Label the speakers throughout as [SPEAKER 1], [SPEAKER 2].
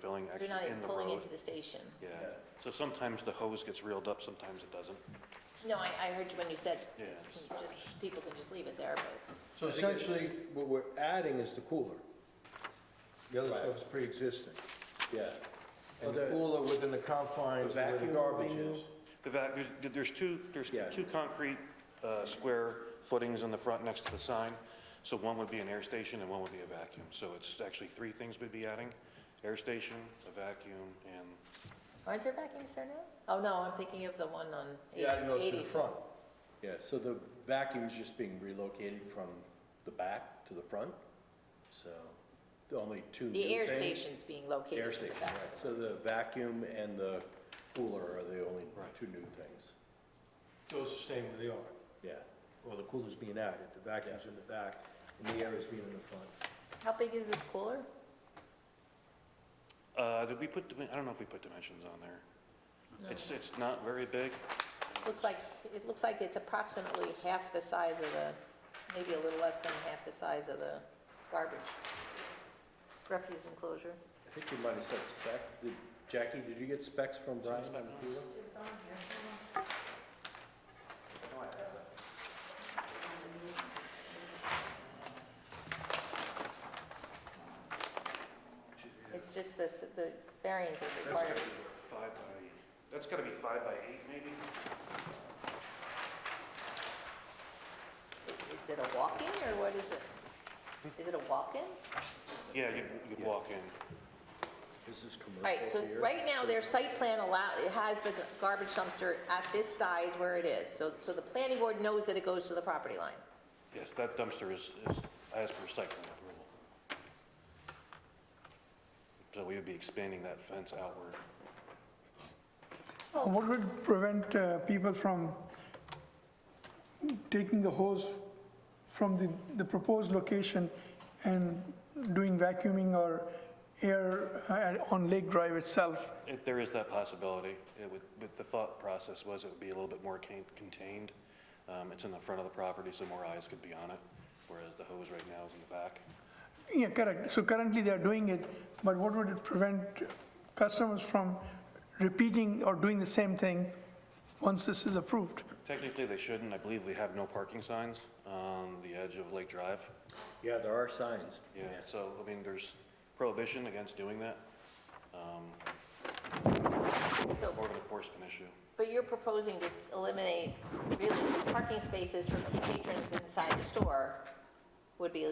[SPEAKER 1] filling
[SPEAKER 2] They're not
[SPEAKER 1] actually
[SPEAKER 2] even
[SPEAKER 1] in the
[SPEAKER 2] pulling
[SPEAKER 1] road.
[SPEAKER 2] into the station.
[SPEAKER 1] Yeah, so sometimes the hose gets reeled up, sometimes it doesn't.
[SPEAKER 2] No, I, I heard when you said,
[SPEAKER 1] Yeah.
[SPEAKER 2] you can just, people can just leave it there, but
[SPEAKER 3] So essentially, what we're adding is the cooler. The other
[SPEAKER 4] Right.
[SPEAKER 3] stuff's pre-existing.
[SPEAKER 4] Yeah,
[SPEAKER 3] And the cooler within the confines of where the
[SPEAKER 4] vacuum
[SPEAKER 3] garbage
[SPEAKER 4] will be
[SPEAKER 3] is.
[SPEAKER 4] new?
[SPEAKER 1] The vac, there's- there's two, there's
[SPEAKER 4] Yeah.
[SPEAKER 1] two concrete uh, square footings in the front next to the sign, so one would be an air station and one would be a vacuum. So it's actually three things we'd be adding, air station, a vacuum, and,
[SPEAKER 2] aren't there vacuums there now? Oh, no, I'm thinking of the one on
[SPEAKER 3] Yeah, it goes to the
[SPEAKER 2] eighties.
[SPEAKER 3] front.
[SPEAKER 4] yeah, so the vacuum's just being relocated from the back to the front, so the only two new
[SPEAKER 2] The air
[SPEAKER 4] things-
[SPEAKER 2] station's being located
[SPEAKER 4] Air
[SPEAKER 2] in the
[SPEAKER 4] station,
[SPEAKER 2] back.
[SPEAKER 4] right, so the vacuum and the cooler are the only two new things,
[SPEAKER 3] Those are staying where they are.
[SPEAKER 4] yeah.
[SPEAKER 3] Well, the cooler's being added, the vacuum's in the back, and the air is being in the front.
[SPEAKER 2] How big is this cooler?
[SPEAKER 1] uh, did we put, dimen- I don't know if we put dimensions on there. It's, it's not very big.
[SPEAKER 2] Looks like, it looks like it's approximately half the size of the, maybe a little less than half the size of the garbage refuse enclosure.
[SPEAKER 4] I think you might have said specs, Did- Jackie, did you get specs from Brian on the cooler?
[SPEAKER 2] It's just this, the variance is required.
[SPEAKER 1] five by, that's gotta be five by eight maybe?
[SPEAKER 2] Is it a walk-in or what is it? Is it a walk-in?
[SPEAKER 1] Yeah, you'd, you'd walk in.
[SPEAKER 4] This is commercial
[SPEAKER 2] Right, so
[SPEAKER 4] here.
[SPEAKER 2] right now, their site plan allow, it has the garbage dumpster at this size where it is. So, so the planning board knows that it goes to the property line.
[SPEAKER 1] Yes, that dumpster is, is as per site plan approval. So we would be expanding that fence outward.
[SPEAKER 5] Uh, What would prevent uh, people from taking the hose from the, the proposed location and doing vacuuming or air uh, on Lake Drive itself?
[SPEAKER 1] If there is that possibility, it would, but the thought process was it would be a little bit more can- contained. Um, it's in the front of the property, so more eyes could be on it, whereas the hose right now is in the back.
[SPEAKER 5] Yeah, correct. So currently they're doing it, but what would it prevent customers from repeating or doing the same thing once this is approved?
[SPEAKER 1] Technically, they shouldn't. I believe we have no parking signs on the edge of Lake Drive.
[SPEAKER 4] Yeah, there are signs.
[SPEAKER 1] Yeah, so, I mean, there's prohibition against doing that,
[SPEAKER 2] So,
[SPEAKER 1] more of an enforcement issue.
[SPEAKER 2] but you're proposing to eliminate really parking spaces for patrons inside the store would be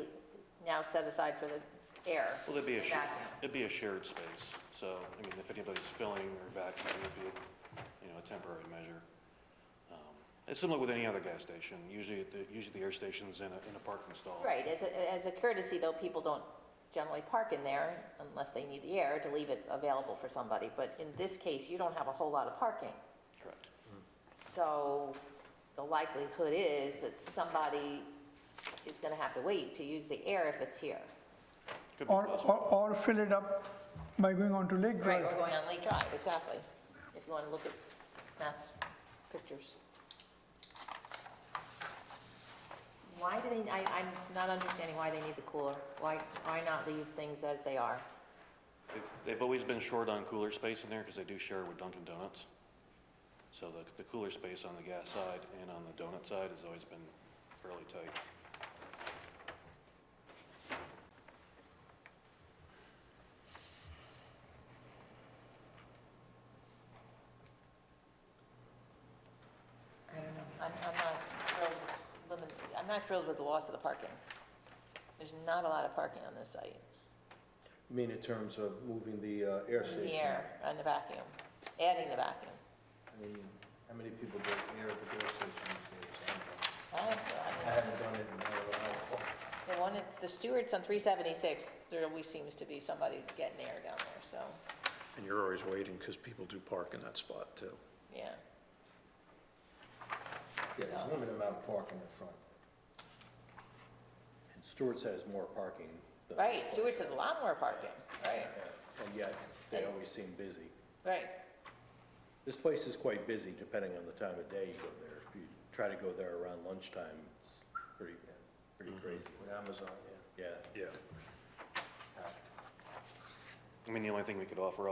[SPEAKER 2] now set aside for the air.
[SPEAKER 1] Well, it'd be a,
[SPEAKER 2] and
[SPEAKER 1] sh-
[SPEAKER 2] vacuum.
[SPEAKER 1] it'd be a shared space, so, I mean, if anybody's filling or vacuuming, it'd be, you know, a temporary measure. Um, It's similar with any other gas station, usually, the- usually the air station's in a, in a parking stall.
[SPEAKER 2] Right, as a, as a courtesy though, people don't generally park in there unless they need the air to leave it available for somebody. But in this case, you don't have a whole lot of parking.
[SPEAKER 1] Correct.
[SPEAKER 2] So the likelihood is that somebody is gonna have to wait to use the air if it's here.
[SPEAKER 1] Could be
[SPEAKER 5] Or,
[SPEAKER 1] possible.
[SPEAKER 5] or, or fill it up by going on to Lake
[SPEAKER 2] Right,
[SPEAKER 5] Drive?
[SPEAKER 2] or going on Lake Drive, exactly. If you wanna look at Matt's pictures. Why do they, I, I'm not understanding why they need the cooler. Why, why not leave things as they are?
[SPEAKER 1] They- They've always been short on cooler space in there, because they do share with Dunkin' Donuts. So the, the cooler space on the gas side and on the donut side has always been fairly tight.
[SPEAKER 2] I don't know. I'm, I'm not thrilled, with limit- I'm not thrilled with the loss of the parking. There's not a lot of parking on this site.
[SPEAKER 3] I mean, in terms of moving the uh, air
[SPEAKER 2] In
[SPEAKER 3] station.
[SPEAKER 2] the air, on the vacuum, adding the vacuum.
[SPEAKER 3] I mean, how many people get air at the air station these days?
[SPEAKER 2] I don't know,
[SPEAKER 3] I
[SPEAKER 2] I mean,
[SPEAKER 3] haven't done it in a while.
[SPEAKER 2] The one, it's the Stewart's on 376, there always seems to be somebody getting air down there, so,
[SPEAKER 6] And you're always waiting because people do park in that spot too.
[SPEAKER 2] yeah.
[SPEAKER 3] Yeah, there's a limited amount of parking in front.
[SPEAKER 4] And Stewart's has more parking than.
[SPEAKER 2] Right,
[SPEAKER 4] this place.
[SPEAKER 2] Stewart's has a lot more parking, right,
[SPEAKER 4] And yet, they always seem busy.
[SPEAKER 2] right.
[SPEAKER 4] This place is quite busy depending on the time of day you go there. If you try to go there around lunchtime, it's pretty, pretty crazy.
[SPEAKER 3] With Amazon, yeah.
[SPEAKER 4] Yeah,
[SPEAKER 6] Yeah.
[SPEAKER 1] I mean, the only thing we could offer